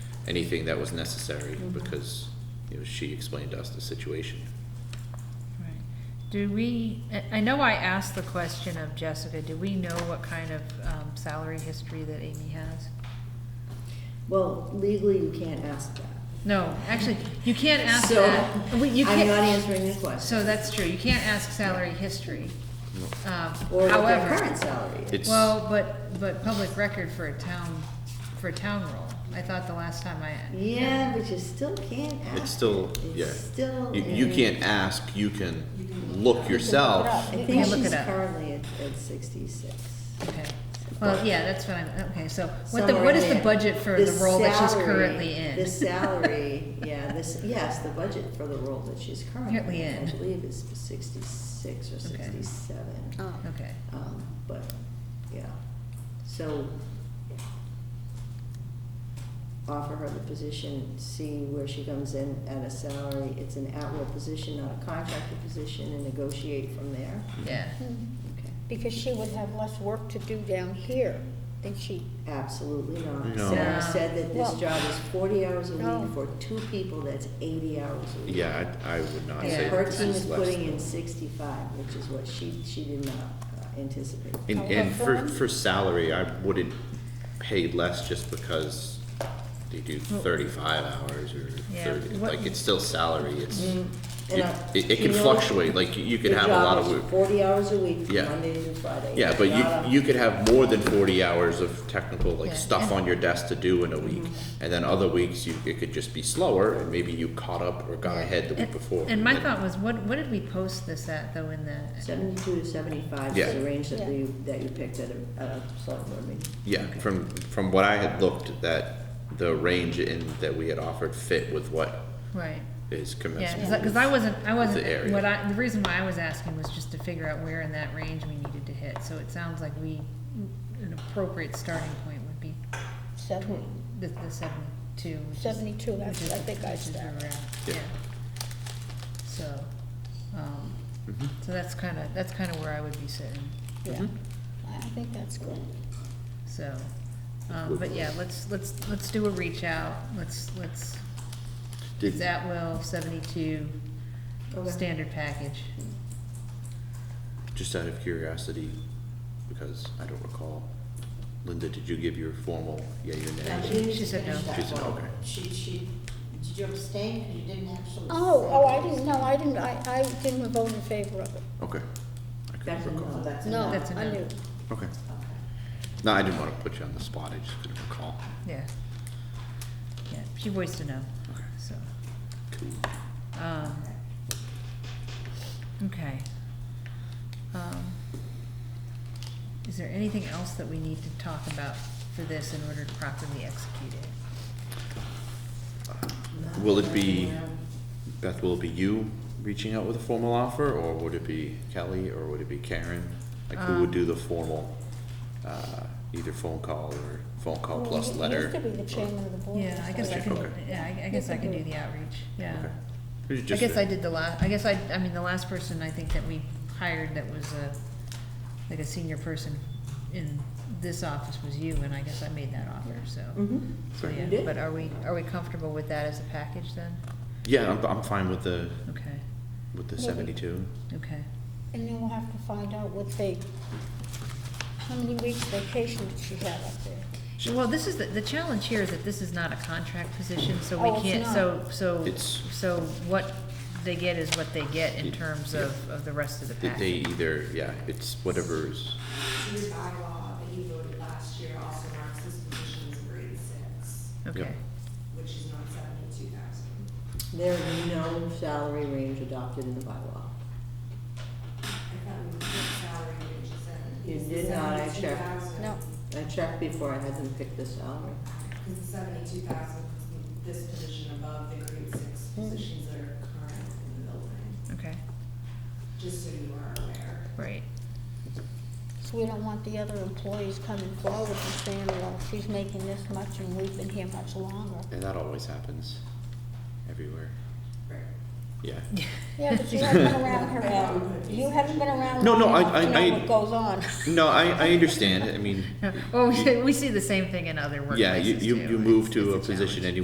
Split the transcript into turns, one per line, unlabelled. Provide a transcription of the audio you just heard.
anything that was necessary, because, you know, she explained to us the situation.
Right. Do we, I- I know I asked the question of Jessica, do we know what kind of um, salary history that Amy has?
Well, legally, you can't ask that.
No, actually, you can't ask
So,
that. We- you
I'm
can't-
not answering your question.
So that's true, you can't ask salary history. Um,
Or what their
However,
current salary is.
It's-
well, but, but public record for a town, for a town role. I thought the last time I,
Yeah, but you still can't ask.
It's still,
it. It's
yeah.
still.
You, you
in-
can't ask, you can look yourself.
I
You
think
can look
she's
it up.
currently at, at sixty-six.
okay. Well, yeah, that's what I'm, okay, so what the,
Somewhere
what is
in
the
there.
budget for the role that she's
salary-
currently in?
The salary, yeah, this, yes, the budget for the role that she's
Currently
currently in,
in.
I believe is sixty-six or
Okay.
sixty-seven.
Oh,
Okay.
Um, but, yeah, so offer her the position, see where she comes in at a salary. It's an at-will position, not a contracted position, and negotiate from there.
Yeah,
hmm.
Okay.
because she would have less work to do down here than she,
Absolutely not.
No.
Sarah said that this
Well-
job is forty hours a
No.
week for two people, that's eighty hours a week.
Yeah, I, I would not
And
say
Yeah.
her
that this
team is
is less.
putting in sixty-five, which is what she, she did not uh, anticipate.
And,
Oh,
and for,
well,
for salary, I wouldn't pay less just because they do thirty-five hours or
Yeah,
thirty,
what-
like, it's still salary, it's,
Mm. And
it,
I-
it- it
you
can
know,
fluctuate, like, you- you could
the
have a
job
lot
is
of, wo-
Forty hours a week, from
Yeah.
Monday to Friday.
yeah, but
Not a-
you, you could have more than forty hours of technical,
Yeah, Mm-hmm.
like, stuff
and-
on your desk to do in a week. And then other weeks, you, it could just be slower, and maybe you caught up or got ahead the week
And-
before.
And my
then-
thought was, what, what did we post this at, though, in the,
Seventy-two to seventy-five
Yeah.
is the range that
Yeah.
you, that you picked at a, at a select board meeting.
Yeah, from, from what I had looked, that the range in, that we had offered fit with what
right?
is
Yeah,
commensurate.
because I wasn't, I
the
wasn't,
area.
what I, the reason why I was asking was just to figure out where in that range we needed to hit. So it sounds like we, an appropriate starting point would be
seventy,
tw- the, the seventy-two. which is-
seventy-two,
which
that's,
is
I
the-
think I
which is where
started.
we're at,
Yeah.
Yeah. So, um,
Mm-hmm.
so that's kind of, that's kind of where I would be sitting,
Yeah, I I think that's good.
so. Um, but yeah, let's, let's, let's do a reach out, let's, let's
Did-
It's at will, seventy-two,
Okay.
standard package.
Just out of curiosity, because I don't recall, Linda, did you give your formal yay or nay?
she- she said no.
She said, okay.
She, she, did you abstain, 'Cause you didn't actually?
Oh,
say
oh, I
that.
didn't, no, I didn't, I, I didn't vote in favor of it.
Okay. I couldn't
That's a
recall.
no, that's a
No,
no.
That's a
I
no.
knew.
Okay. No, I didn't want to put you on the spot, I just couldn't recall.
Yeah. Yeah, she voiced a no,
Okay.
so,
Cool.
um, okay. Um, Is there anything else that we need to talk about for this in order to properly execute it?
Will it be, Beth, will it be you reaching out with a formal offer, or would it be Kelly, or would it be Karen? Like, who would do the formal, uh, either phone call or phone call
Well,
plus
you-
letter?
You used to be the chairman of the board.
Yeah, I guess I
Okay.
can,
Okay.
yeah, I- I guess I can do the outreach, yeah.
Okay. Who's
I
just
guess
a-
I did the last, I guess I, I mean, the last person I think that we hired that was a, like a senior person in this office was you, and I guess I made that offer, so.
Mm-hmm.
Mhm.
So,
You
yeah,
did.
but are we, are we comfortable with that as a package then?
Yeah, I'm, I'm fine with the,
Okay,
with the
Maybe.
seventy-two.
okay,
And then we'll have to find out what they, how many weeks vacation did she have up there?
well, this is, the, the challenge here is that this is not a contract position, so
Oh,
we
it's
can't,
not.
so, so,
It's-
so what they get is what they get in
It-
terms
yeah.
of, of the rest of the
They- They
package.
either, yeah, it's whatever's,
Your bylaw that you voted last year also marks this position as a grade six,
Okay,
which is not seventy-two thousand.
There is no salary range adopted in the bylaw.
I thought we put salary ranges in.
You
Is the
did not, I checked.
72,000
No.
I checked before I had them pick the salary.
Is the seventy-two thousand, this position above the grade six positions that are current in the building,
okay,
just so you are aware.
right,
So we don't want the other employees coming forward and saying, well, she's making this much and we've been here much longer.
and that always happens everywhere,
Right.
yeah.
Yeah, but you haven't been around her, Al. You haven't been around.
No, no,
long
I-
enough to
I-
know
I-
what goes on.
No, I, I understand, I mean,
Well, we, we see the same thing in other workplaces
yeah, you, you,
too.
you move
It's-
to a
it's
position
challenge.
and you